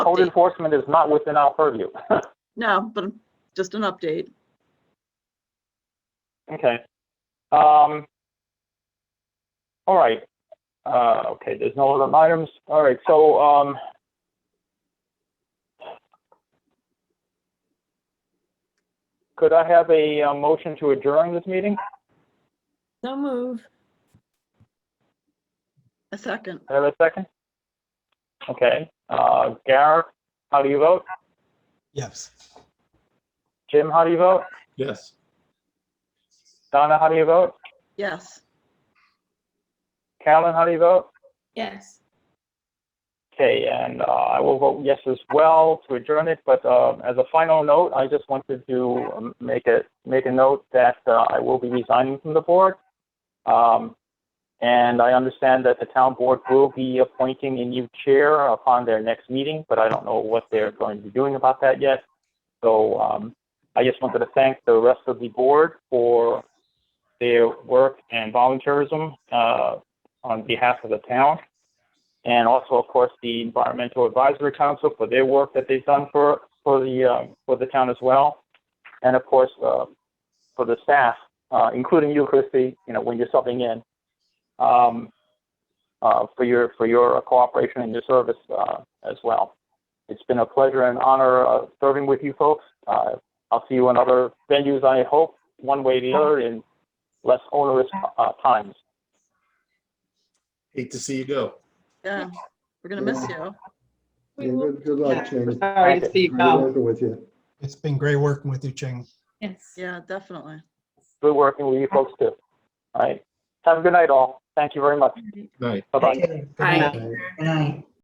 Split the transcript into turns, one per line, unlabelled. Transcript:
Code
Update.
enforcement is not within our purview.
No, but just an update.
Okay. Um, all right. Uh, okay, there's no other items. All right, so, um, could I have a, uh motion to adjourn this meeting?
No move.
A second.
Can I Have a second? Okay, uh, Garrett, how do you vote?
Yes.
Jim, how do you vote?
Yes.
Donna, how do you vote?
Yes.
Carolyn, how do you vote?
Yes.
Okay, and uh, I will vote yes as well to adjourn it, but uh, as a final note, I just wanted to um, make a, make a note that uh, I will be resigning from the board. Um, And I understand that the town board will be appointing a new chair upon their next meeting, but I don't know what they're going to be doing about that yet. So um, I just wanted to thank the rest of the board for their work and volunteerism uh, on behalf of the town and also, of course, the Environmental Advisory Council for their work that they've done for, for the, uh, for the town as well. And of course, uh, for the staff, uh, including you, Christie, you know, when you're subbing in, um, uh, for your, for your cooperation and your service, uh, as well. It's been a pleasure and honor, uh, serving with you folks. Uh, I'll see you in other venues, I hope, one way or the other, in less onerous, uh, times.
Hate to see you go.
Yeah. We're gonna miss you.
Yeah, Good good luck, Ching.
Sorry to see you
Great
go.
working with you.
It's been great working with you, Ching.
Yes.
Yeah, definitely.
good working with you folks too.
Mm-hmm.
All right. Have a good night all. Thank you very much.
Night.
Bye bye.
Bye.
Okay.
Good night.